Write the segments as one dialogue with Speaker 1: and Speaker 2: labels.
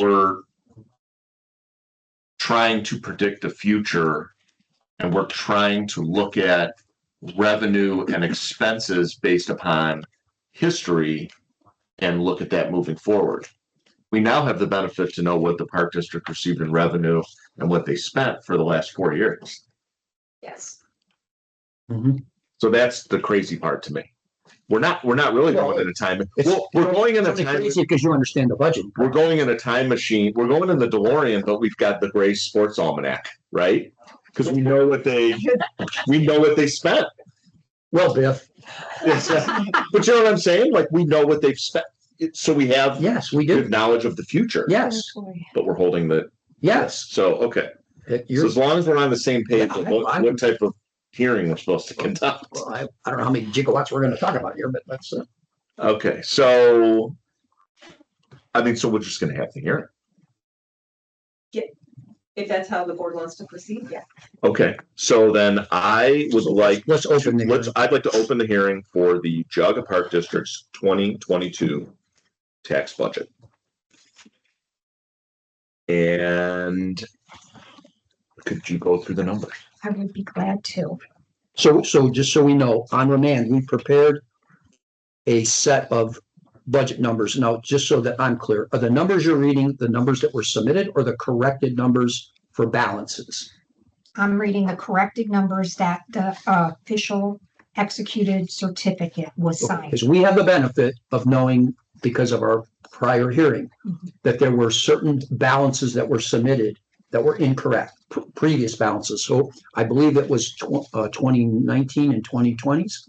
Speaker 1: we're trying to predict the future and we're trying to look at revenue and expenses based upon history and look at that moving forward. We now have the benefit to know what the park district received in revenue and what they spent for the last four years.
Speaker 2: Yes.
Speaker 3: Mm-hmm.
Speaker 1: So that's the crazy part to me. We're not, we're not really going in a time,
Speaker 3: It's-
Speaker 1: well, we're going in a
Speaker 3: It's only
Speaker 1: time.
Speaker 3: crazy because you understand the budget.
Speaker 1: we're going in a time machine. We're going in the DeLorean, but we've got the gray sports almanac, right? Because we know what they, we know what they spent.
Speaker 3: Well, Biff,
Speaker 1: It's, uh, but you know what I'm saying? Like we know what they've spent. It- So we have
Speaker 3: yes, we
Speaker 1: good
Speaker 3: do.
Speaker 1: knowledge of the future.
Speaker 3: Yes,
Speaker 1: But we're holding the,
Speaker 3: yes.
Speaker 1: so, okay.
Speaker 3: It-
Speaker 1: So
Speaker 3: you're-
Speaker 1: as long as we're on the same page
Speaker 3: Yeah,
Speaker 1: of
Speaker 3: I-
Speaker 1: what,
Speaker 3: I-
Speaker 1: what type of hearing we're supposed to conduct.
Speaker 3: well, I, I don't know how many gigawatts we're gonna talk about here, but that's, uh,
Speaker 1: Okay, so. I mean, so we're just gonna have to hear it.
Speaker 2: If that's how the board wants to proceed, yeah.
Speaker 1: Okay, so then I would like
Speaker 3: let's open the.
Speaker 1: Let's, I'd like to open the hearing for the Jaga Park District's twenty twenty-two tax budget. And could you go through the numbers?
Speaker 4: I would be glad to.
Speaker 3: So, so just so we know, on remand, we prepared a set of budget numbers. Now, just so that I'm clear, are the numbers you're reading, the numbers that were submitted or the corrected numbers for balances?
Speaker 4: I'm reading the corrected numbers that the uh, official executed certificate was signed.
Speaker 3: Because we have the benefit of knowing because of our prior hearing that there were certain balances that were submitted that were incorrect, pr- previous balances. So I believe it was tw- uh, twenty nineteen and twenty twenties.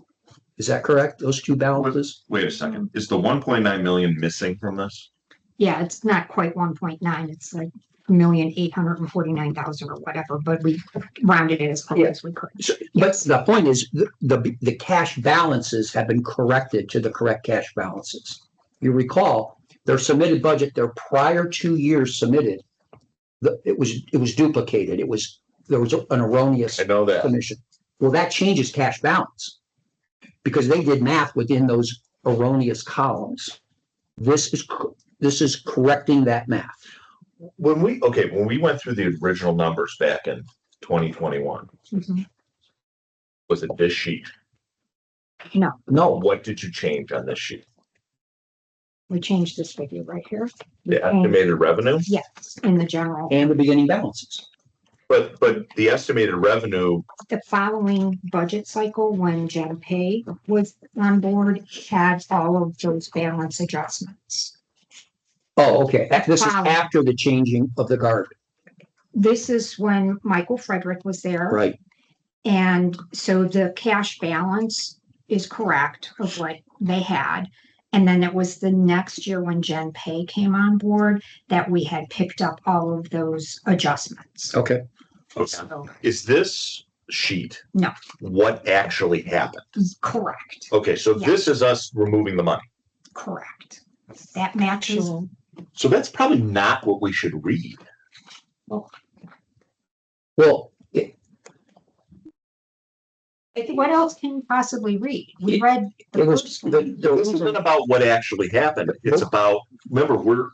Speaker 3: Is that correct? Those two balances?
Speaker 1: Wait a second, is the one point nine million missing from this?
Speaker 4: Yeah, it's not quite one point nine. It's like a million eight hundred and forty-nine thousand or whatever, but we rounded it as close
Speaker 3: Yeah.
Speaker 4: as we could.
Speaker 3: So- But the point is, the, the, the cash balances have been corrected to the correct cash balances. You recall, their submitted budget, their prior two years submitted, the, it was, it was duplicated. It was, there was an erroneous
Speaker 1: I know that,
Speaker 3: commission. Well, that changes cash balance. Because they did math within those erroneous columns. This is, co- this is correcting that math.
Speaker 1: when we, okay, when we went through the original numbers back in twenty twenty-one,
Speaker 4: Mhm.
Speaker 1: was it this sheet? Oh,
Speaker 4: No,
Speaker 3: No,
Speaker 1: What did you change on this sheet?
Speaker 4: we changed this figure right here.
Speaker 1: The
Speaker 4: Mm-hmm.
Speaker 1: estimated revenue?
Speaker 4: Yes, in the general,
Speaker 3: and the beginning balances.
Speaker 1: But, but the estimated revenue
Speaker 4: the following budget cycle, when Jen Pay was on board, had all of those balance adjustments.
Speaker 3: Oh, okay. This is
Speaker 4: Wow.
Speaker 3: after the changing of the guard,
Speaker 4: this is when Michael Frederick was there.
Speaker 3: right?
Speaker 4: And so the cash balance is correct of what they had. And then it was the next year when Jen Pay came on board that we had picked up all of those adjustments.
Speaker 3: Okay.
Speaker 4: So,
Speaker 1: Is this sheet?
Speaker 4: No.
Speaker 1: What actually happened?
Speaker 4: correct,
Speaker 1: Okay, so
Speaker 4: Yeah.
Speaker 1: this is us removing the money.
Speaker 4: correct. That matches.
Speaker 1: So that's probably not what we should read.
Speaker 3: Well, it-
Speaker 2: I think
Speaker 4: What else can you possibly read? We
Speaker 3: It-
Speaker 4: read the
Speaker 3: it was-
Speaker 4: first
Speaker 3: the-
Speaker 4: one.
Speaker 3: the-
Speaker 1: This isn't about what actually happened. It's about, remember, we're,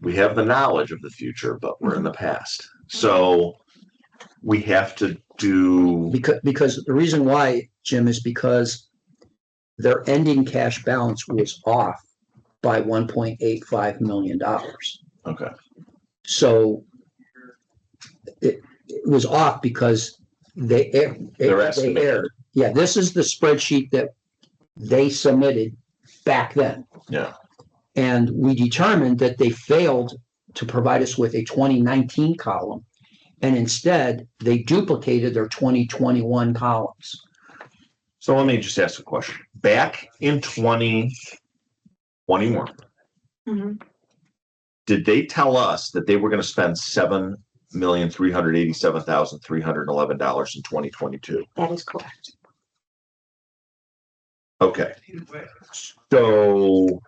Speaker 1: we have the knowledge of the future, but we're in the past. So we have to do,
Speaker 3: because, because the reason why, Jim, is because their ending cash balance was off by one point eight five million dollars.
Speaker 1: okay,
Speaker 3: So it, it was off because they air- they
Speaker 1: They're estimating.
Speaker 3: aired. Yeah, this is the spreadsheet that they submitted back then.
Speaker 1: Yeah.
Speaker 3: And we determined that they failed to provide us with a twenty nineteen column. And instead, they duplicated their twenty twenty-one columns.
Speaker 1: so let me just ask a question. Back in twenty twenty-one,
Speaker 4: Mhm.
Speaker 1: did they tell us that they were gonna spend seven million, three hundred eighty-seven thousand, three hundred and eleven dollars in twenty twenty-two?
Speaker 4: That is correct.
Speaker 1: Okay. So,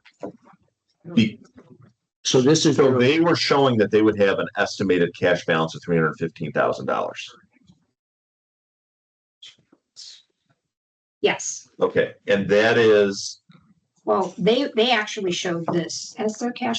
Speaker 1: be-
Speaker 3: So this is,
Speaker 1: so
Speaker 3: their-
Speaker 1: they were showing that they would have an estimated cash balance of three hundred and fifteen thousand dollars.
Speaker 4: Yes.
Speaker 1: Okay, and that is
Speaker 4: Well, they, they actually showed this as their cash